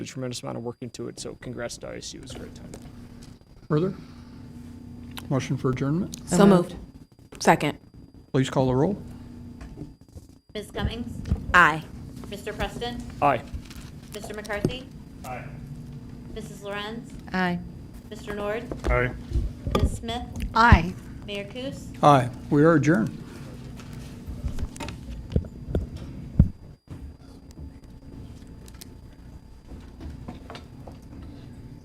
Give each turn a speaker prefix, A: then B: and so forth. A: a tremendous amount of work into it. So congrats to ISU. It was a great time.
B: Further? Motion for adjournment?
C: So moved. Second.
B: Please call the roll.
D: Ms. Cummings?
C: Aye.
D: Mr. Preston?
A: Aye.
D: Mr. McCarthy? Aye. Mrs. Lorenz?
C: Aye.
D: Mr. Nord?
E: Aye.
D: Ms. Smith?
C: Aye.
D: Mayor Kus?
B: Aye, we are adjourned.